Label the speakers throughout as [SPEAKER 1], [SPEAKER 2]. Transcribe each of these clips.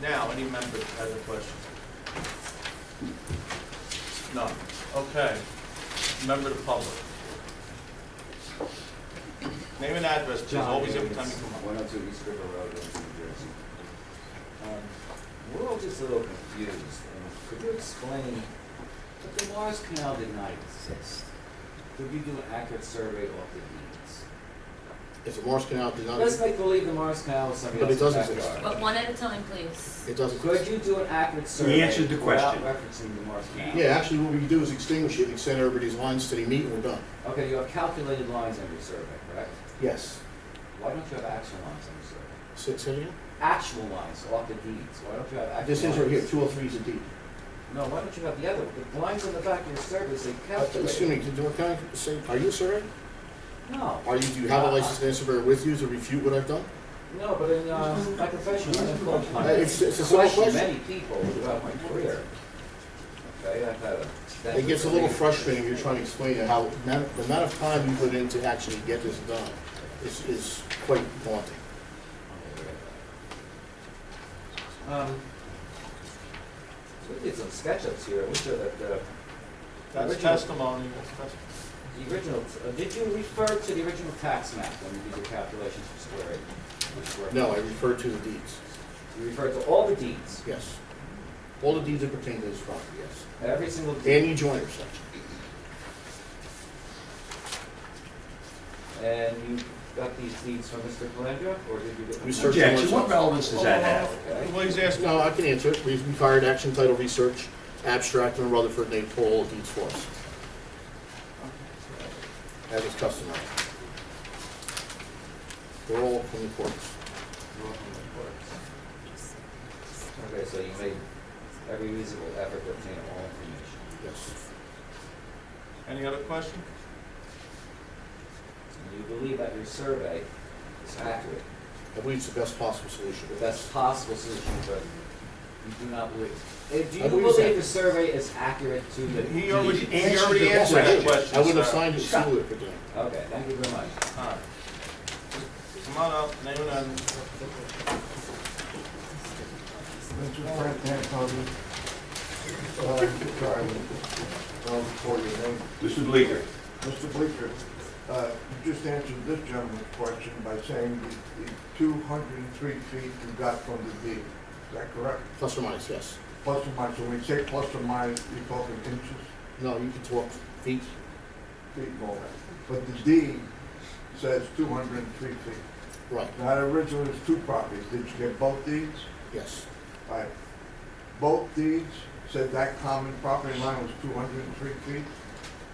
[SPEAKER 1] Now, any member has a question? None. Okay. Member of the public. Name and address, please,
[SPEAKER 2] John
[SPEAKER 1] always every
[SPEAKER 2] Davis,
[SPEAKER 1] time you come up.
[SPEAKER 2] 102 East River Road, Livingston, New Jersey. Um, We're all just a little confused, and could you explain, if the Mars Canal did not exist, could we do an accurate survey of the deeds?
[SPEAKER 3] If the Morse Canal did not,
[SPEAKER 2] Let's
[SPEAKER 3] it
[SPEAKER 2] make believe the Mars Canal was somebody
[SPEAKER 3] But it
[SPEAKER 2] else's
[SPEAKER 3] doesn't exist.
[SPEAKER 2] backyard.
[SPEAKER 4] But one at a time, please.
[SPEAKER 3] doesn't.
[SPEAKER 2] Could you do an accurate survey
[SPEAKER 5] answered the
[SPEAKER 2] without
[SPEAKER 5] question.
[SPEAKER 2] referencing the Mars Canal?
[SPEAKER 3] Yeah, actually, what we can do is extinguish it, extend everybody's lines to the meet, and we're done.
[SPEAKER 2] Okay, you have calculated lines on your survey, correct?
[SPEAKER 3] Yes.
[SPEAKER 2] Why don't you have actual lines on your survey?
[SPEAKER 3] Say say it again?
[SPEAKER 2] Actual lines off the deeds, why don't you have actual lines?
[SPEAKER 3] This is right here, two oh three is a deed.
[SPEAKER 2] No, why don't you have the other, the lines on the back of your survey say
[SPEAKER 3] Uh, Excuse me,
[SPEAKER 2] calculated.
[SPEAKER 3] did, what can I say, are you a surveyor?
[SPEAKER 2] No,
[SPEAKER 3] Are you, do you have a licensed land surveyor with you to refute what I've done?
[SPEAKER 2] no, but in, uh, my profession, I'm called
[SPEAKER 3] Uh,
[SPEAKER 2] upon to
[SPEAKER 3] It's, it's a simple
[SPEAKER 2] question
[SPEAKER 3] question.
[SPEAKER 2] many people throughout my career. Okay, I've had a.
[SPEAKER 3] It gets a little frustrating, if you're trying to explain it, how, the amount- the amount of time you put in to actually get this done is, is quite daunting.
[SPEAKER 2] Um, so we did some sketchups here, I'm sure that, uh,
[SPEAKER 1] That's
[SPEAKER 2] Original.
[SPEAKER 1] testimony, that's testimony.
[SPEAKER 2] the original, uh, did you refer to the original tax map when you did your calculations for square acre? for square-
[SPEAKER 3] No, I refer to the deeds,
[SPEAKER 2] You referred to all the deeds,
[SPEAKER 3] yes. All the deeds that pertain to this property, yes.
[SPEAKER 2] every single deed.
[SPEAKER 3] Andy Joyner section.
[SPEAKER 2] And you got these deeds from Mr. Calandra, or did you get them?
[SPEAKER 3] We searched-
[SPEAKER 5] Objection, what relevance does that have?
[SPEAKER 2] Okay.
[SPEAKER 1] Well, he's asking,
[SPEAKER 3] No, I can answer it. We've required action title research, abstract, and Rutherford, they pull all deeds for us. That is customary. We're all from the courts.
[SPEAKER 2] Okay, so you made every reasonable effort to obtain all information.
[SPEAKER 3] Yes.
[SPEAKER 1] any other question?
[SPEAKER 2] And you believe that your survey is accurate,
[SPEAKER 3] I believe it's the best possible solution.
[SPEAKER 2] the best possible solution, but you do not believe. eh, Do
[SPEAKER 3] I
[SPEAKER 2] you
[SPEAKER 3] believe it's
[SPEAKER 2] believe
[SPEAKER 3] accurate.
[SPEAKER 2] the survey is accurate to the
[SPEAKER 1] He
[SPEAKER 2] deed?
[SPEAKER 1] already, he
[SPEAKER 5] answered
[SPEAKER 1] already
[SPEAKER 5] the
[SPEAKER 1] answered that question.
[SPEAKER 3] I would have
[SPEAKER 1] sir.
[SPEAKER 3] signed it sooner if I did.
[SPEAKER 2] Okay, thank you very much.
[SPEAKER 1] All right. Come on up, name and address.
[SPEAKER 6] Richard Frank Antoni. Sorry, wrong before your name.
[SPEAKER 5] Mr. Bleeker.
[SPEAKER 6] Mr. Bleeker, uh, you just answered this gentleman's question by saying the- the 203 feet you got from the deed. Is that correct?
[SPEAKER 3] Plus or minus, yes.
[SPEAKER 6] Plus or minus, when we say plus or minus, you're talking inches,
[SPEAKER 3] No, you can talk feet.
[SPEAKER 6] feet, and all that. But the deed says 203 feet.
[SPEAKER 3] Right,
[SPEAKER 6] Now, originally, it's two properties. Did you get both deeds?
[SPEAKER 3] yes.
[SPEAKER 6] Right. Both deeds said that common property line was 203 feet?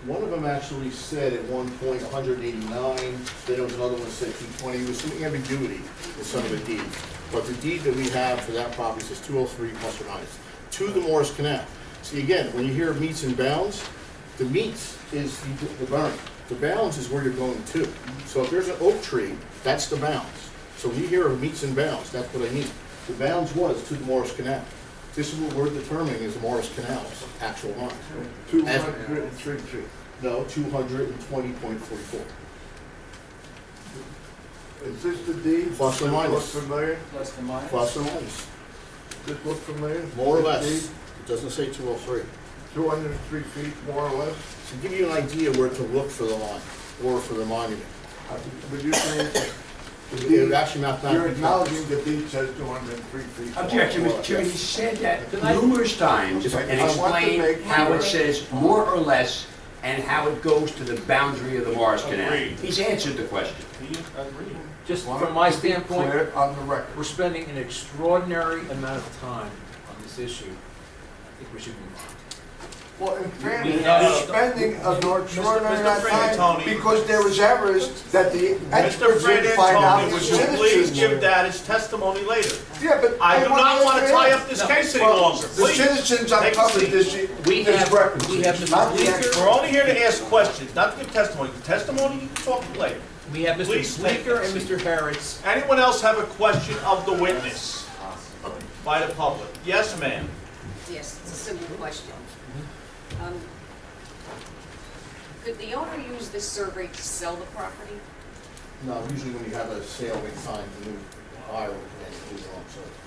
[SPEAKER 3] One of them actually said at one point 189, then there was another one that said 220, there was some ambiguity in some of the deeds. But the deed that we have for that property says 203 plus or minus, to the Morris Canal. See, again, when you hear meets and bounds, the meets is the the berm, the bounds is where you're going to. So if there's an oak tree, that's the bounds. So when you hear of meets and bounds, that's what I mean. The bounds was to the Morris Canal. This is what we're determining is the Morris Canal's actual line.
[SPEAKER 6] 203 feet.
[SPEAKER 3] No, two hundred and twenty point forty-four.
[SPEAKER 6] Is this the deed?
[SPEAKER 3] Plus or minus.
[SPEAKER 6] Does it look familiar?
[SPEAKER 2] Plus or minus?
[SPEAKER 3] Plus or minus,
[SPEAKER 6] Does this look familiar?
[SPEAKER 3] more or
[SPEAKER 6] This
[SPEAKER 3] less.
[SPEAKER 6] deed,
[SPEAKER 3] It doesn't say two oh three.
[SPEAKER 6] 203 feet, more or less?
[SPEAKER 3] To give you an idea where to look for the line, or for the monument.
[SPEAKER 6] I think- Would you say the
[SPEAKER 3] It would
[SPEAKER 6] deed,
[SPEAKER 3] actually mathematically.
[SPEAKER 6] you're acknowledging the deed says 203 feet? more
[SPEAKER 5] Objection,
[SPEAKER 6] or less.
[SPEAKER 5] Mr. Chairman, you said that numerous times
[SPEAKER 6] Okay,
[SPEAKER 5] and
[SPEAKER 6] I want to
[SPEAKER 5] explained
[SPEAKER 6] make-
[SPEAKER 5] how it says more or less and how it goes to the boundary of the Morris Canal.
[SPEAKER 1] Agreed.
[SPEAKER 5] He's answered the question.
[SPEAKER 1] He agreed.
[SPEAKER 7] Just
[SPEAKER 6] Why
[SPEAKER 7] from my
[SPEAKER 6] don't you be
[SPEAKER 7] standpoint,
[SPEAKER 6] clear On the record.
[SPEAKER 7] we're spending an extraordinary amount of time on this issue. I think we should move on.
[SPEAKER 6] Well, in fairness,
[SPEAKER 1] no, no.
[SPEAKER 6] you're spending an extraordinary
[SPEAKER 1] Mr.
[SPEAKER 6] amount of time
[SPEAKER 1] Frantantoni.
[SPEAKER 6] because there was errors that the
[SPEAKER 1] Mr.
[SPEAKER 6] experts
[SPEAKER 1] Fred
[SPEAKER 6] didn't find out.
[SPEAKER 1] Antoni, would
[SPEAKER 6] the
[SPEAKER 1] you
[SPEAKER 6] citizens
[SPEAKER 1] please
[SPEAKER 6] were.
[SPEAKER 1] give that as testimony later?
[SPEAKER 6] Yeah, but.
[SPEAKER 1] I do
[SPEAKER 6] want
[SPEAKER 1] not
[SPEAKER 6] to
[SPEAKER 1] want to
[SPEAKER 6] answer
[SPEAKER 1] tie
[SPEAKER 6] it.
[SPEAKER 1] up this case any
[SPEAKER 6] Well,
[SPEAKER 1] longer,
[SPEAKER 6] the
[SPEAKER 1] please. Take
[SPEAKER 6] citizens
[SPEAKER 1] a
[SPEAKER 6] uncovered
[SPEAKER 1] seat.
[SPEAKER 6] this,
[SPEAKER 7] We
[SPEAKER 6] this
[SPEAKER 7] have-
[SPEAKER 6] record.
[SPEAKER 7] we have Mr.
[SPEAKER 6] Not the
[SPEAKER 7] Bleeker.
[SPEAKER 6] experts.
[SPEAKER 1] We're only here to ask questions, not to give testimony. The Testimony, you can talk to later.
[SPEAKER 7] We have
[SPEAKER 1] Please
[SPEAKER 7] Mr.
[SPEAKER 1] take
[SPEAKER 7] Bleeker
[SPEAKER 1] a
[SPEAKER 7] and
[SPEAKER 1] seat.
[SPEAKER 7] Mr. Harris.
[SPEAKER 1] Anyone else have a question of the witness by the public? Yes, ma'am.
[SPEAKER 8] Yes, it's a simple question. Um, Could the owner use this survey to sell the property?
[SPEAKER 3] No, usually when you have a sale, we sign the new buyer, and move on, so.